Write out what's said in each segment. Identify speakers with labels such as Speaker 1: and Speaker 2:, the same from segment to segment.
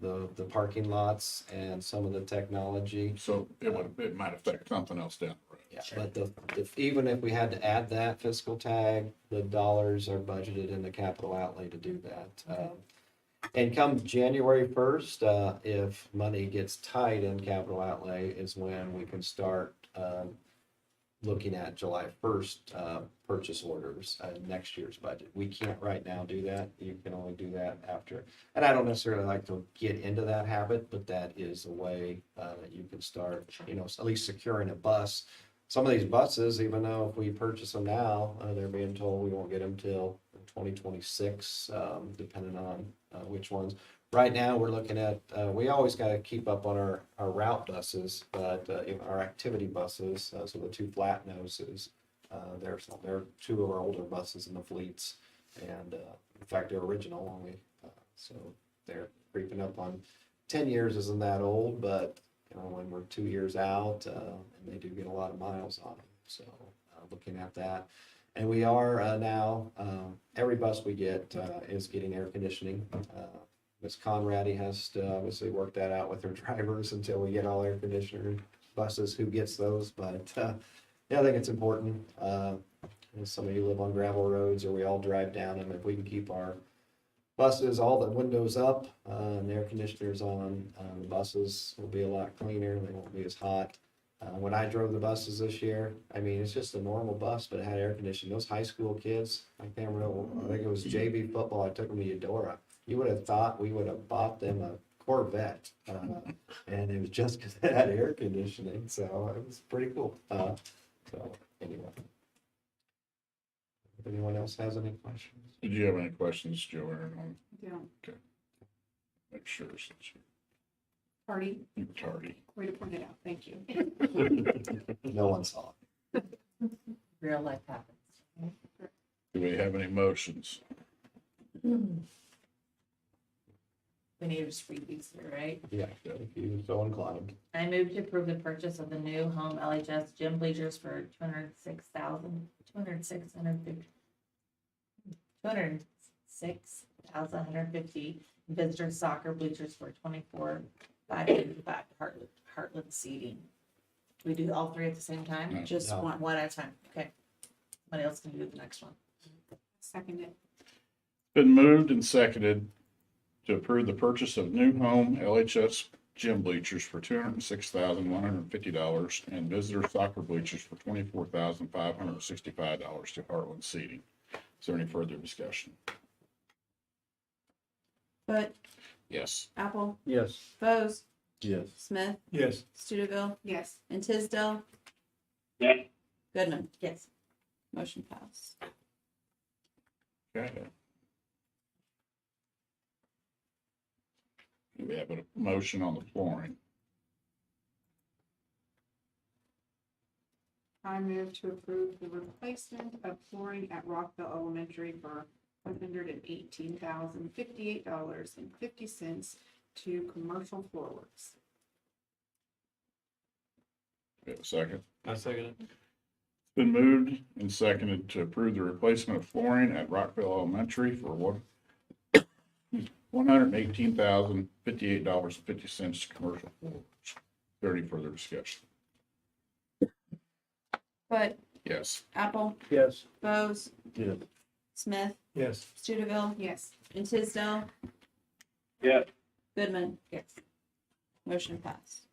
Speaker 1: the, the parking lots and some of the technology.
Speaker 2: So it would, it might affect something else down the road.
Speaker 1: Yeah, but the, if, even if we had to add that fiscal tag, the dollars are budgeted in the capital outlay to do that. Um, And come January first, uh, if money gets tight in capital outlay is when we can start, um, looking at July first, uh, purchase orders, uh, next year's budget. We can't right now do that. You can only do that after. And I don't necessarily like to get into that habit, but that is a way, uh, that you can start, you know, at least securing a bus some of these buses, even though if we purchase them now, uh, they're being told we won't get them till twenty twenty-six, um, depending on, uh, which ones. Right now, we're looking at, uh, we always gotta keep up on our, our route buses, but, uh, even our activity buses, uh, so the two flat noses. Uh, there's, there are two of our older buses in the fleets and, uh, in fact, they're original only, uh, so they're creeping up on. Ten years isn't that old, but you know, when we're two years out, uh, and they do get a lot of miles on them. So, uh, looking at that. And we are, uh, now, um, every bus we get, uh, is getting air conditioning. Uh, Ms. Conrady has to obviously work that out with her drivers until we get all air conditioner buses, who gets those, but, uh, yeah, I think it's important. Uh, and some of you live on gravel roads or we all drive down them. If we can keep our buses, all the windows up, uh, and the air conditioners on, uh, the buses will be a lot cleaner, they won't be as hot. Uh, when I drove the buses this year, I mean, it's just a normal bus, but it had air conditioning, those high school kids, I can't remember, I think it was JV football, I took them to Eudora. You would have thought we would have bought them a Corvette, uh, and it was just because it had air conditioning, so it was pretty cool, uh, so, anyway. If anyone else has any questions?
Speaker 2: Did you have any questions, Joanne, on,
Speaker 3: Yeah,
Speaker 2: make sure since you-
Speaker 3: Artie,
Speaker 2: you were tardy?
Speaker 3: way to point it out, thank you.
Speaker 1: No one saw it.
Speaker 4: real life happens.
Speaker 2: Do we have any motions?
Speaker 4: We need to just read these through, right?
Speaker 1: Yeah, if you're so inclined.
Speaker 4: I move to approve the purchase of the new home LHS gym bleachers for two hundred six thousand, two hundred six hundred fifty. Two hundred six thousand hundred fifty visitor soccer bleachers for twenty-four five fifty-five Heartland, Heartland seating. We do all three at the same time?
Speaker 2: No.
Speaker 3: Just
Speaker 1: No.
Speaker 3: one,
Speaker 4: One at a time, okay. Somebody else can do the next one.
Speaker 3: second it,
Speaker 2: Been moved and seconded to approve the purchase of new home LHS gym bleachers for two hundred and six thousand one hundred and fifty dollars and visitor soccer bleachers for twenty-four thousand five hundred and sixty-five dollars to Heartland Seating. Is there any further discussion?
Speaker 5: But
Speaker 2: Yes.
Speaker 5: Apple,
Speaker 1: Yes.
Speaker 5: Bose,
Speaker 1: Yes.
Speaker 5: Smith,
Speaker 6: Yes,
Speaker 5: Studeville,
Speaker 3: yes,
Speaker 5: and Tisdale. Goodman,
Speaker 4: Yes.
Speaker 5: motion passed.
Speaker 2: Okay. Do we have a motion on the flooring?
Speaker 3: I move to approve the replacement of flooring at Rockville Elementary for one hundred and eighteen thousand fifty-eight dollars and fifty cents to Commercial Floorworks.
Speaker 2: We have a second?
Speaker 6: I second it.
Speaker 2: Been moved and seconded to approve the replacement of flooring at Rockville Elementary for one one hundred and eighteen thousand fifty-eight dollars and fifty cents to commercial floors. Is there any further discussion?
Speaker 5: But
Speaker 2: Yes.
Speaker 5: Apple,
Speaker 6: Yes.
Speaker 5: Bose,
Speaker 1: Yes.
Speaker 5: Smith,
Speaker 6: Yes.
Speaker 5: Studeville,
Speaker 3: Yes,
Speaker 5: and Tisdale.
Speaker 6: Yeah.
Speaker 5: Goodman,
Speaker 4: Yes.
Speaker 5: motion passed.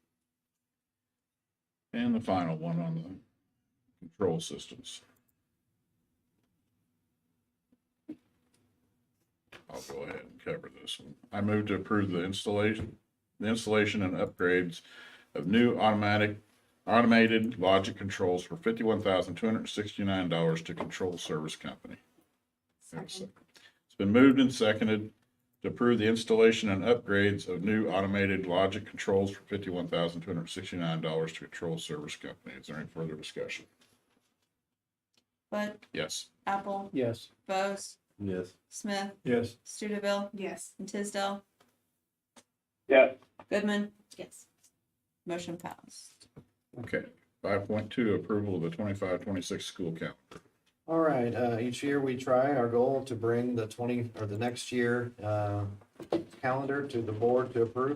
Speaker 2: And the final one on the control systems. I'll go ahead and cover this one. I move to approve the installation, the installation and upgrades of new automatic, automated logic controls for fifty-one thousand two hundred sixty-nine dollars to Control Service Company.
Speaker 3: second,
Speaker 2: It's been moved and seconded to approve the installation and upgrades of new automated logic controls for fifty-one thousand two hundred sixty-nine dollars to Control Service Company. Is there any further discussion?
Speaker 5: But
Speaker 2: Yes.
Speaker 5: Apple,
Speaker 6: Yes.
Speaker 5: Bose,
Speaker 1: Yes.
Speaker 5: Smith,
Speaker 6: Yes.
Speaker 5: Studeville,
Speaker 3: yes.
Speaker 5: and Tisdale.
Speaker 6: Yeah.
Speaker 5: Goodman,
Speaker 4: Yes.
Speaker 5: motion passed.
Speaker 2: Okay. Five point two, approval of the twenty-five, twenty-six school calendar.
Speaker 1: All right, uh, each year we try our goal to bring the twenty, or the next year, uh, calendar to the board to approve.